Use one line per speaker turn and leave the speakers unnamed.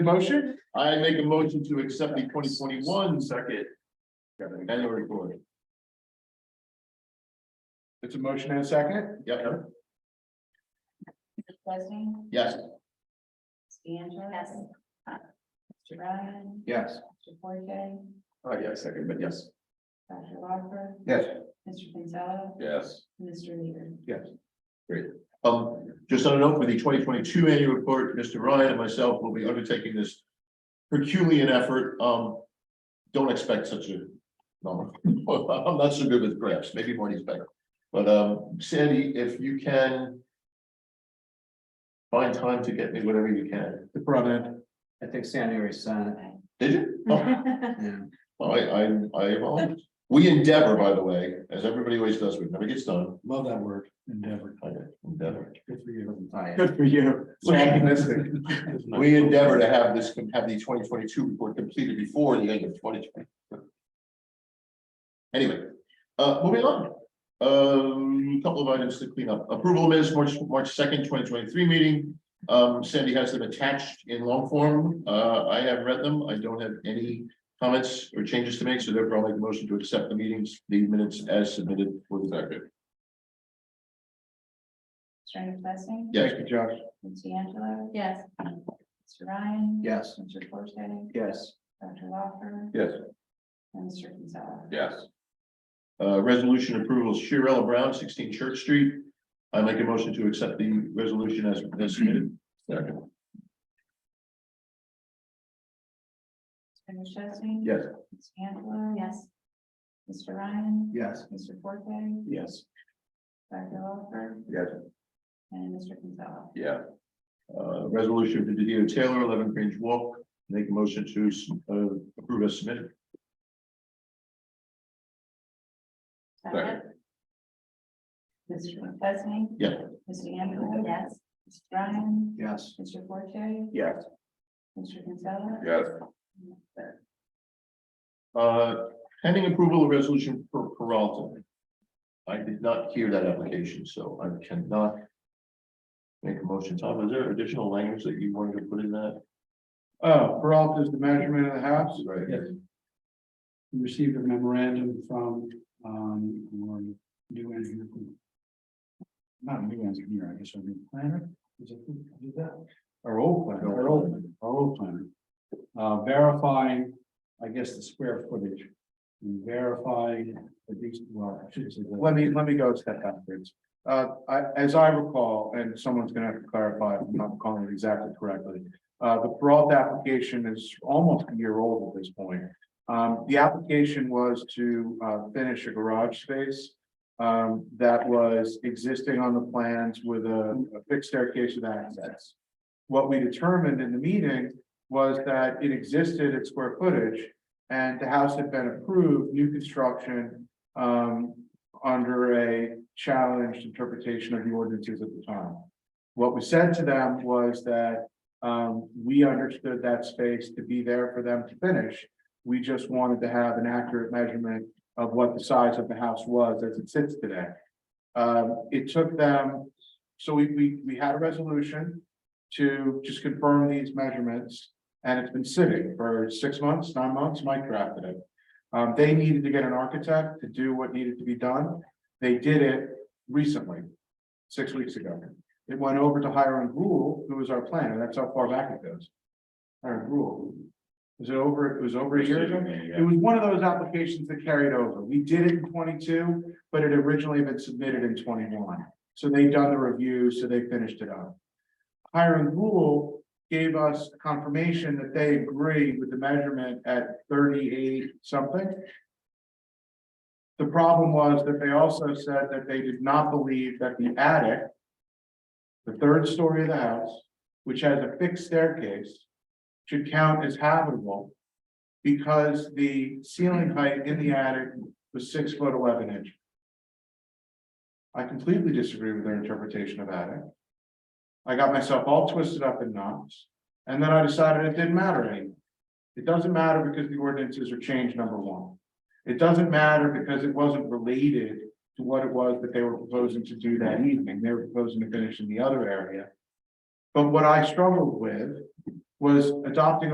Motion?
I make a motion to accept the twenty twenty-one second annual report.
It's a motion and a second?
Yep,
President,
yes.
D'Angelo. Yes. Mr. Ryan,
Yes.
Mr. Forte,
Oh, yeah, second, but yes.
Dr. Walker,
Yes.
Mr. Gonzalez,
Yes.
Mr. Leader.
Um, just on a note, for the twenty twenty-two annual report, Mr. Ryan and myself will be undertaking this Herculean effort. Um, don't expect such a number. I'm not so good with graphs, maybe Marty's better. But, um, Sandy, if you can find time to get me whatever you can.
The front end. Mm-hmm.
I think Sandy already signed
Did you? Oh,
it, yeah.
I, I, I, apologize. we endeavor, by the way, as everybody always does, we never gets done.
Love that word, endeavor.
I Endeavor.
Good for you.
Aye.
Good for you. So optimistic.
We endeavor to have this, have the twenty twenty-two report completed before the end of twenty twenty. Anyway, uh, moving on, um, a couple of items to clean up. Approval of minutes, March, March second, twenty twenty-three meeting. Um, Sandy has them attached in long form. Uh, I have read them. I don't have any comments or changes to make, so therefore I'll make a motion to accept the meetings, the minutes as submitted for the record.
Attorney Pressley.
Yes,
Thank you, Josh.
D'Angelo. Yes. Mr. um, Ryan.
Yes,
Mr. Forte,
yes,
Dr. Walker.
Yes.
And Mr. Gonzalez.
Yes. Uh, resolution approval, Shirella Brown, sixteen Church Street. I make a motion to accept the resolution as as submitted. Second.
Attorney Pressley.
Yes.
D'Angelo. Yes. Mr. Ryan.
yes,
Mr. Forte,
Yes.
Dr. Walker,
Yes.
and Mr. Gonzalez.
Yeah. Uh, resolution for Didier Taylor, eleven Grange Walk, make a motion to uh, approve as submitted. Second.
Mr. Pressley.
Yeah.
Mr. D'Angelo. Yes. Mr. Ryan.
yes,
Mr. Forte,
Yes.
Mr. Gonzalez.
Yes. Uh, pending approval of resolution for Peralta. I did not hear that application, so I cannot. Make a motion. Tom, is there additional language that you wanted to put in that?
Oh, Peralta's the measurement of the house.
Right.
Yes. We Received a memorandum from, um, our new engineer. Not new engineer, I guess, our new planner, is it who did that? Our old planner, our old, our old planner. Uh, verifying, I guess, the square footage. and Verifying the decent, well, I should say.
Let me, let me go a step backwards. Uh, I, as I recall, and someone's gonna have to clarify, if I'm not calling it exactly correctly. Uh, the Peralta application is almost a year old at this point. Um, the application was to, uh, finish a garage space. Um, that was existing on the plans with a a fixed staircase with access. What we determined in the meeting was that it existed at square footage. And the house had been approved, new construction, um, under a challenged interpretation of the ordinances at the time. What we said to them was that um, we understood that space to be there for them to finish. We just wanted to have an accurate measurement of what the size of the house was as it sits today. Um, it took them, so we, we, we had a resolution to just confirm these measurements. And it's been sitting for six months, nine months, Mike drafted it. Um, they needed to get an architect to do what needed to be done. They did it recently, six weeks ago. It went over to Hiram Rule, who was our planner. That's how far back it goes. Hiram Rule. Was it over, it was over a year ago? It was one of those applications that carried over. We did it in twenty-two, but it originally had been submitted in twenty-one. So they done the review, so they finished it up. Hiram Rule gave us confirmation that they agree with the measurement at thirty-eight something. The problem was that they also said that they did not believe that the attic. The third story of the house, which has a fixed staircase, should count as habitable. Because the ceiling height in the attic was six foot eleven inch. I completely disagree with their interpretation of attic. I got myself all twisted up in knots. And then I decided it didn't matter anymore. It doesn't matter because the ordinances are changed, number one. It doesn't matter because it wasn't related to what it was that they were proposing to do that evening. They were proposing to finish in the other area. But what I struggled with was adopting